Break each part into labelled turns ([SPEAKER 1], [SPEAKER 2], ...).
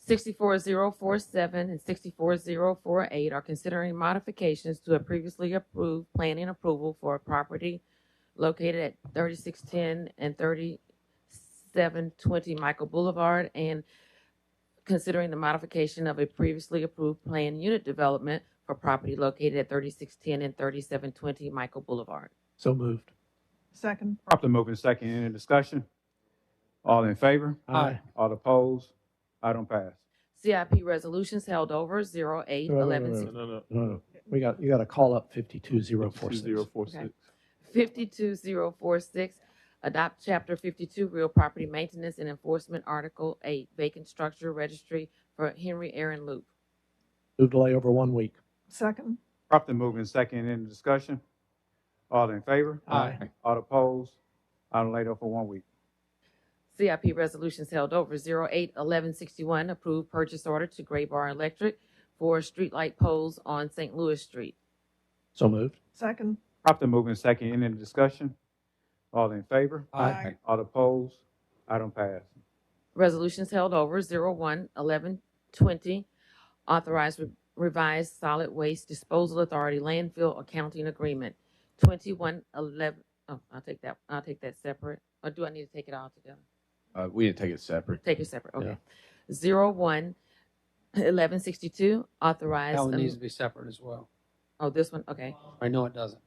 [SPEAKER 1] 64047 and 64048 are considering modifications to a previously approved planning approval for a property located at 3610 and 3720 Michael Boulevard and considering the modification of a previously approved planned unit development for property located at 3610 and 3720 Michael Boulevard.
[SPEAKER 2] So moved.
[SPEAKER 3] second,
[SPEAKER 4] Properly moved in second, any discussion? All in favor?
[SPEAKER 2] Aye.
[SPEAKER 4] All opposed? Item pass.
[SPEAKER 1] CIP resolutions held over 08
[SPEAKER 2] Wait, wait, wait,
[SPEAKER 1] 11
[SPEAKER 2] wait.
[SPEAKER 5] No, no, no.
[SPEAKER 2] No, no, we got, you got to call up 52046.
[SPEAKER 5] 2046.
[SPEAKER 1] 52046, adopt Chapter 52 Real Property Maintenance and Enforcement, Article 8, vacant structure registry for Henry Aaron Loop.
[SPEAKER 2] Move delay over one week.
[SPEAKER 3] second,
[SPEAKER 4] Properly moved in second, any discussion? All in favor?
[SPEAKER 2] Aye.
[SPEAKER 4] All opposed? Item laid over for one week.
[SPEAKER 1] CIP resolutions held over 081161, approved purchase order to Gray Bar Electric for streetlight poles on St. Louis Street.
[SPEAKER 2] So moved.
[SPEAKER 3] second,
[SPEAKER 4] Properly moved in second, any discussion? All in favor?
[SPEAKER 3] Aye. Aye.
[SPEAKER 4] All opposed? Item pass.
[SPEAKER 1] Resolutions held over 011120, authorized re- revised solid waste disposal authority landfill accounting agreement. 2111, oh, I'll take that, I'll take that separate, or do I need to take it all together?
[SPEAKER 6] Uh, we didn't take it separate.
[SPEAKER 1] Take it separate, okay. 011162, authorized,
[SPEAKER 7] That one
[SPEAKER 1] am-
[SPEAKER 7] needs to be separate as well.
[SPEAKER 1] oh, this one, okay.
[SPEAKER 7] I know it doesn't.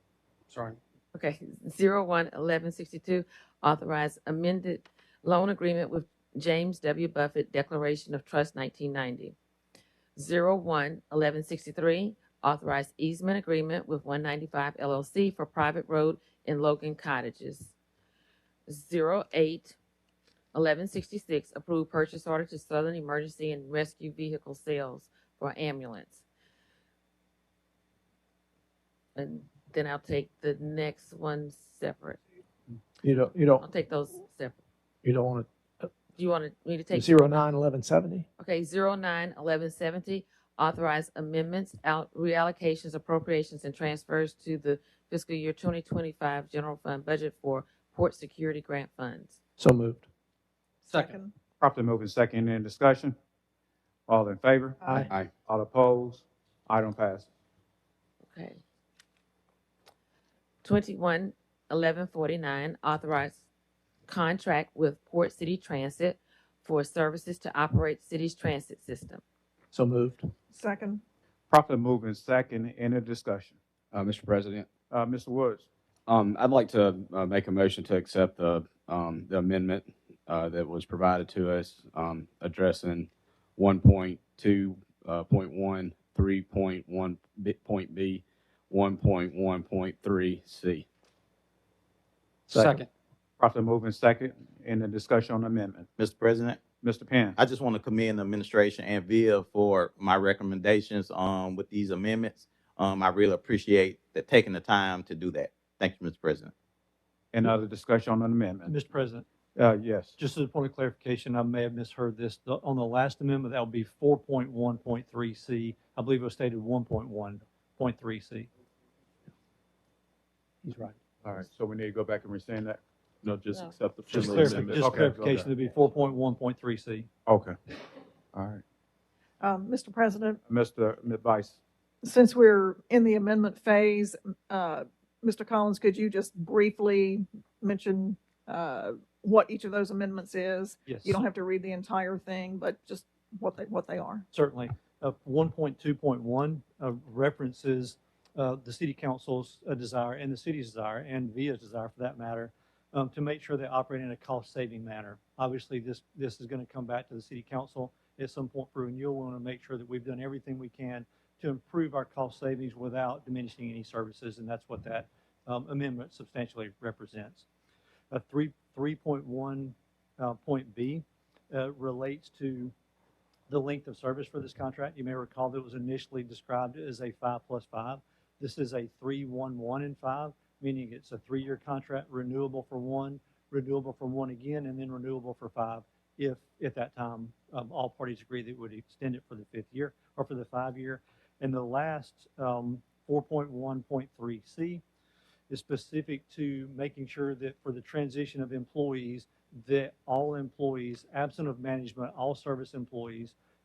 [SPEAKER 7] Sorry.
[SPEAKER 1] Okay, zero one eleven sixty-two, authorized amended loan agreement with James W. Buffett Declaration of Trust nineteen ninety. Zero one eleven sixty-three, authorized easement agreement with one ninety-five LLC for private road in Logan Cottages. Zero eight eleven sixty-six, approved purchase order to Southern Emergency and Rescue Vehicle Sales for ambulance. And then I'll take the next one separate.
[SPEAKER 2] You don't, you
[SPEAKER 1] I'll
[SPEAKER 2] don't,
[SPEAKER 1] take those separate.
[SPEAKER 2] you don't want
[SPEAKER 1] Do you want me to
[SPEAKER 2] to,
[SPEAKER 1] take?
[SPEAKER 2] 091170?
[SPEAKER 1] Okay, zero nine eleven seventy, authorize amendments, out reallocations, appropriations, and transfers to the fiscal year twenty twenty-five general fund budget for port security grant funds.
[SPEAKER 2] So moved.
[SPEAKER 7] Second.
[SPEAKER 3] second,
[SPEAKER 4] Properly moved in second, any discussion? All in favor?
[SPEAKER 3] aye,
[SPEAKER 6] Aye.
[SPEAKER 4] All opposed? Item pass.
[SPEAKER 1] Okay. Twenty-one eleven forty-nine, authorize contract with Port City Transit for services to operate city's transit system.
[SPEAKER 2] So moved.
[SPEAKER 3] second,
[SPEAKER 4] Properly moved in second, any discussion?
[SPEAKER 6] Uh, Mr. President,
[SPEAKER 4] Uh, Mr. Woods?
[SPEAKER 6] um, I'd like to uh, make a motion to accept the, um, the amendment uh, that was provided to us um, addressing 1.2.1, uh, point 1, 3.1, B- point B, 1.1.3C.
[SPEAKER 2] Second.
[SPEAKER 7] Second.
[SPEAKER 4] Properly moved in second, any discussion on amendment?
[SPEAKER 8] Mr. President,
[SPEAKER 4] Mr. Penn?
[SPEAKER 8] I just want to commend the administration and VIA for my recommendations um, with these amendments. Um, I really appreciate that taking the time to do that. Thank you, Mr. President.
[SPEAKER 4] Any other discussion on the amendment?
[SPEAKER 5] Mr. President,
[SPEAKER 4] Uh, yes.
[SPEAKER 5] just as a point of clarification, I may have misheard this. The- On the last amendment, that would be 4.1.3C. I believe it was stated 1.1.3C.
[SPEAKER 2] He's right.
[SPEAKER 4] All right, so we need to go back and rescind that?
[SPEAKER 5] No,
[SPEAKER 1] just No.
[SPEAKER 5] accept the
[SPEAKER 4] friendly amendment.
[SPEAKER 5] Just
[SPEAKER 4] Okay,
[SPEAKER 5] clarification,
[SPEAKER 4] okay.
[SPEAKER 5] it'd be 4.1.3C.
[SPEAKER 4] Okay. All right.
[SPEAKER 3] um, Mr. President,
[SPEAKER 4] Mr. Vice,
[SPEAKER 3] since we're in the amendment phase, uh, Mr. Collins, could you just briefly mention, uh, what each of those amendments is?
[SPEAKER 5] Yes.
[SPEAKER 3] You don't have to read the entire thing, but just what they, what they are.
[SPEAKER 5] certainly. Uh, 1.2.1 uh, references uh, the city council's uh, desire and the city's desire and VIA's desire for that matter um, to make sure they operate in a cost-saving manner. Obviously, this, this is going to come back to the city council at some point for renewal. We want to make sure that we've done everything we can to improve our cost savings without diminishing any services, and that's what that um, amendment substantially represents. Uh, 3, 3.1 uh, point B uh, relates to the length of service for this contract. You may recall that it was initially described as a five plus five. This is a three, one, one, and five, meaning it's a three-year contract, renewable for one, renewable for one again, and then renewable for five if, at that time, um, all parties agree that it would extend it for the fifth year or for the five-year. And the last, um, 4.1.3C is specific to making sure that for the transition of employees, that all employees, absent of management, all service employees